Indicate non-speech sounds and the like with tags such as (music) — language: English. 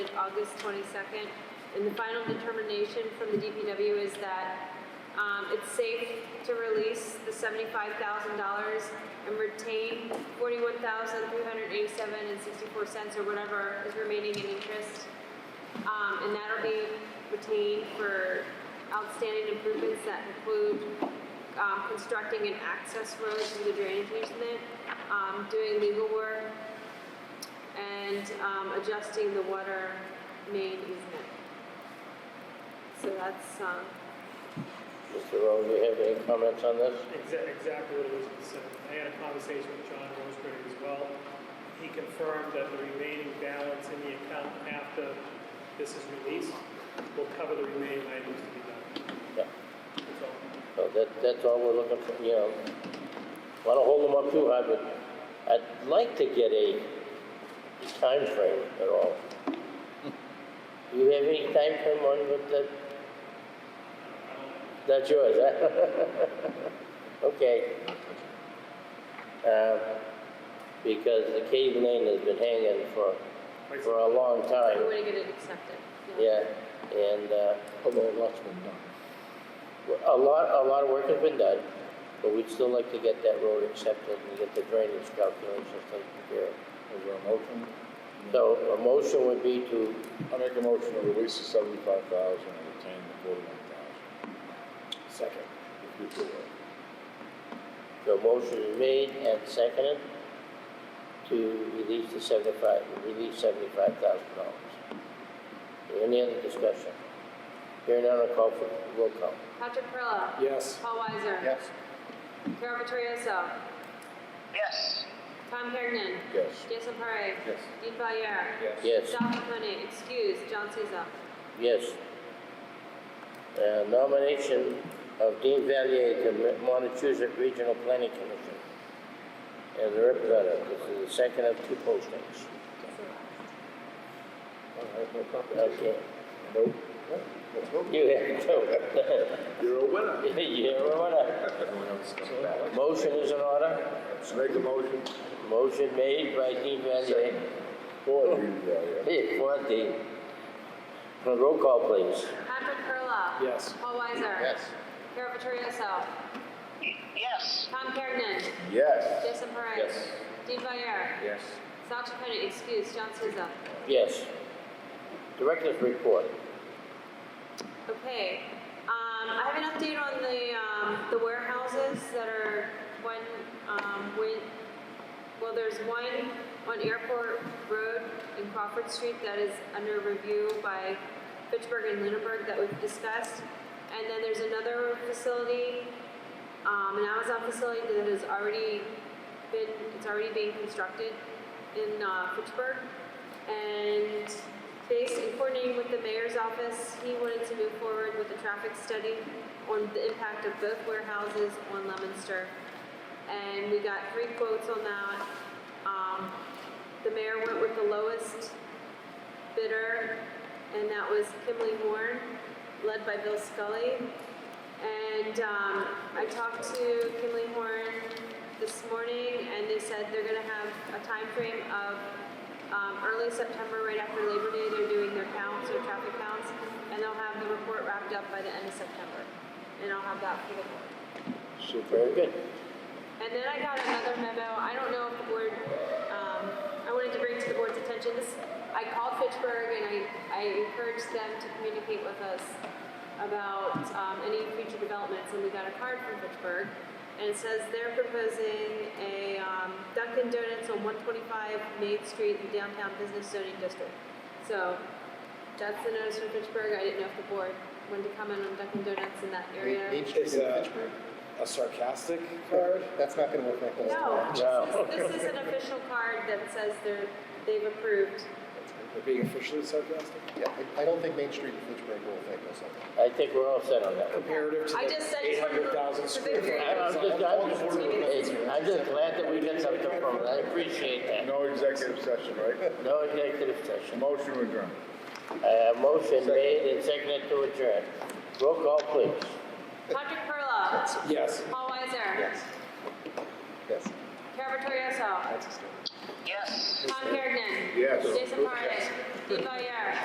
August 22nd. And the final determination from the DPW is that um, it's safe to release the $75,000 and retain $41,387.64 or whatever is remaining in interest. Um, and that'll be retained for outstanding improvements that include, um, constructing an access road to the drainage easement, um, doing legal work, and, um, adjusting the water main easement. So that's, um, Mr. Rowe, do you have any comments on this? Exa- Exactly what Elizabeth said. I had a conversation with John Roseberry as well. He confirmed that the remaining balance in the account after this is released will cover the remaining items to be done. Yeah. That's all. So that, that's all we're looking for, you know. Want to hold them up too high, but I'd like to get a time frame at all. Do you have any time frame on what that? That's yours, huh? (laughs) Okay. Uh, Because the cave lane has been hanging for, for a long we time. want to get it accepted. Yeah, and, uh, although a lot's been done. A lot, a lot of work has been done, but we'd still like to get that road accepted and get the drainage calculations taken care of. Is there a motion? So a motion would be to, I make a motion to release the seventy-five thousand and retain the forty-one thousand. Second. If you will. the motion is made and seconded to release the seventy-five, release seventy-five thousand dollars. Any other discussion? Hearing none, I'll call for, roll call. Patrick Perla. Yes. Paul Weiser. Yes. Carol Vittorioso. yes, Tom Hergen. Yes. Jason Parre. Yes. Dean Valier. Yes. Don Capone, excuse, John Souza. Yes. Uh, Nomination of Dean Valier to Ma- Montezuma Regional Planning Commission as a representative. This is the second of two postings. Okay. Nope. Nope. You have to. You're a winner. (laughs) You're on it. Everyone else comes back. Motion is in order. Make a motion. Motion made by Dean Valier. Forty, yeah, yeah. Hey, (laughs) for Dean. Roll call, please. Patrick Perla. Yes. Paul Weiser. Carol Vittorioso. y- yes, Tom Hergen. Yes. Jason Parre. Yes. Dean Valier. Yes. Sal Chaconi, excuse, John Souza. Yes. Director's report. Okay, um, I have an update on the, um, the warehouses that are, one, um, when, well, there's one on Airport Road in Crawford Street that is under review by Fitchburg and Lunenburg that we've discussed. And then there's another facility, um, an Amazon facility that has already been, it's already being constructed in, uh, Fitchburg. And based in coordinating with the mayor's office, he wanted to move forward with a traffic study on the impact of both warehouses on Lemonster. And we got three quotes on that. Um, the mayor went with the lowest bidder, and that was Kimley Horn, led by Bill Scully. And um, I talked to Kinley Horn this morning, and they said they're going to have a time frame of um, early September, right after Labor Day. They're doing their counts, their traffic counts, and they'll have the report wrapped up by the end of September. And I'll have that for the board. Very good. And then I got another memo, I don't know if the board, um, I wanted to bring to the board's attention, this, I called Fitchburg and I, I encouraged them to communicate with us about, um, any future developments, and we got a card from Fitchburg. And it says they're proposing a, um, Dunkin' Donuts on one twenty-five Main Street in downtown business zoning district. So, that's the notice from Fitchburg, I didn't know if the board wanted to comment on Dunkin' Donuts in that area. Is a, a sarcastic card? That's not gonna work like that. No, No. this is, this is an official card that says they're, they've approved. We're being officially sarcastic? Yeah, I I don't think Main Street in Fitchburg will think of something. I think we're all set on that. Comparative to I like just said. eight hundred thousand square feet. I- I'm just, I'm just, it's- I'm just glad that we got something from it, I appreciate that. No executive session, right? No executive session. Motion adjourned. Uh, motion made and seconded to adjourn. Roll call, please. Patrick Perla. Yes. Paul Weiser. Yes. Carol Vittorioso. yes. Tom Hergen. Yes. Jason Parre. Dean Valier.